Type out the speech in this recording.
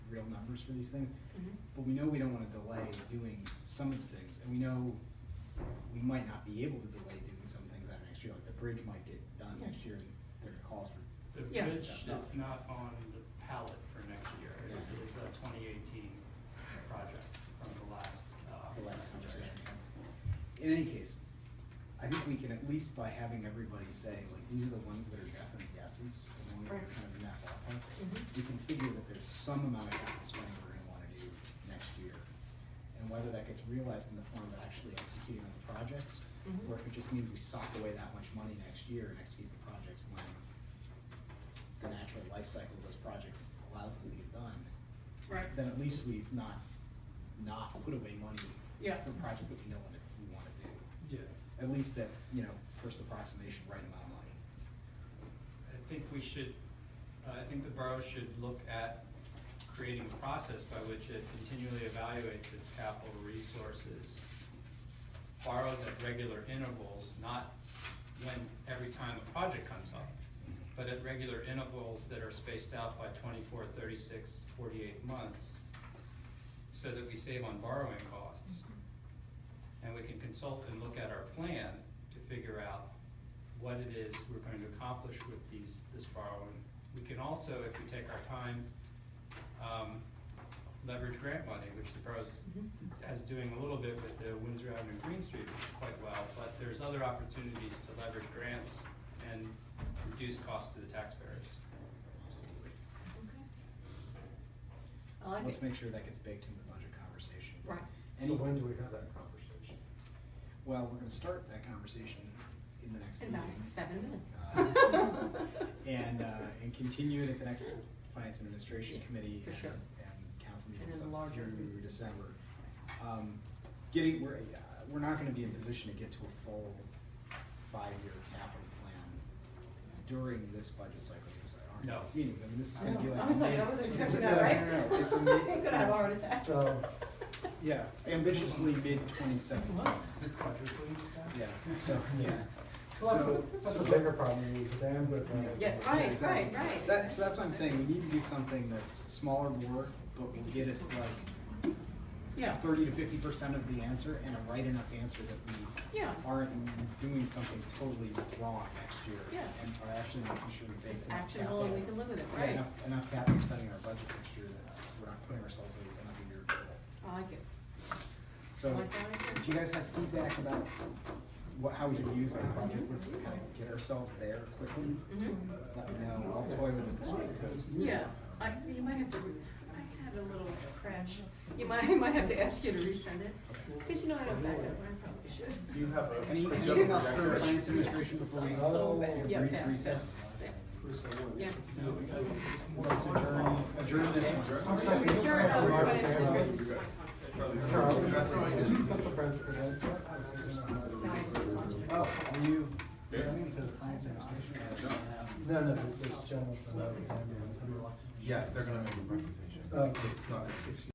numbers for these things, Mhm. but we know we don't wanna delay doing some of the things, and we know we might not be able to delay doing some things out next year, like the bridge might get done Yeah. next year, and there are calls for, The Yeah. bridge is not on the palette for next year, Yeah. it is a twenty eighteen project from the last, uh. the last conversation. In any case, I think we can at least by having everybody say, like, these are the ones that are definite yeses, the ones that are Right. kind of in that ballpark. Mhm. We can figure that there's some amount of capital spending we're gonna wanna do next year. And whether that gets realized in the form of actually executing on the projects, Mhm. or if it just means we sock away that much money next year and execute the projects when the natural life cycle of those projects allows them to get done Right. then at least we've not, not put away money Yeah. for projects that we know what we wanna do. Yeah, At least that, you know, first approximation, right amount of money. I think we should, uh, I think the borough should look at creating a process by which it continually evaluates its capital resources. Borrows at regular intervals, not when, every time a project comes up, but at regular intervals that are spaced out by 24, 36, 48 months, so that we save on borrowing costs. And we can consult and look at our plan to figure out what it is we're going to accomplish with these, this borrowing. We can also, if we take our time, um, leverage grant money, which the borough's Mhm. has doing a little bit with the Windsor Avenue Green Street quite well, but there's other opportunities to leverage grants and reduce costs to the taxpayers. Absolutely. Okay. I So like let's it. make sure that gets baked into the budget conversation. Right. So Any- when do we have that conversation? Well, we're gonna start that conversation in the next In meeting. about seven minutes. Uh, And, uh, and continue it at the next Finance and Administration Yeah, Committee for and, sure. and council And meetings then up larger. through December. Um, getting, we're, uh, we're not gonna be in position to get to a full five-year capital plan during this budget cycle, because there aren't No. enough meetings, I mean, this is I gonna be know. like. I was like, mid- Oh, I wasn't it's- expecting it's that, a- right? No, no, it's a mid- I'm gonna have a heart yeah. attack. So, Yeah, ambitiously mid twenty seventeen. Wow. Quadrupling stuff? Yeah, so, yeah. well, that's So- a, that's so- a bigger problem, is the bandwidth. of- Yeah, right, exactly. right, right. That's, that's what I'm saying, we need to do something that's smaller more, but will get us like Yeah, thirty to fifty percent of the answer and a right enough answer that we Yeah. aren't doing something totally wrong next year. Yeah. And are actually making sure we base it's enough actionable and we capital- can live with it, yeah, right? Enough, enough capital spending in our budget next year that we're not putting ourselves in another year of trouble. I like it. So, Like that idea. if you guys have feedback about what, how we should use our project list to kind of get ourselves there quickly, Mhm. let me know, I'll toy with it this week too. Yeah, I, you might have to, I had a little crash. You might, I might have to ask you to resend it, because you know I don't back up, I probably should. Do you have a? Any, a anything general else for record? science administration before we So take bad. a Yeah, brief yeah, recess? yeah, yeah. Bruce, I wonder. Yeah. No, we gotta- Let's adjourn, adjourn this one. Sorry. Sure, no, we're fine. Charlie, You got- Charlie, is he supposed to present for this? No, I just watched it. Oh, are you? going to the science administration? No, no, it's just general. Yes, they're gonna make a presentation. Okay. It's not-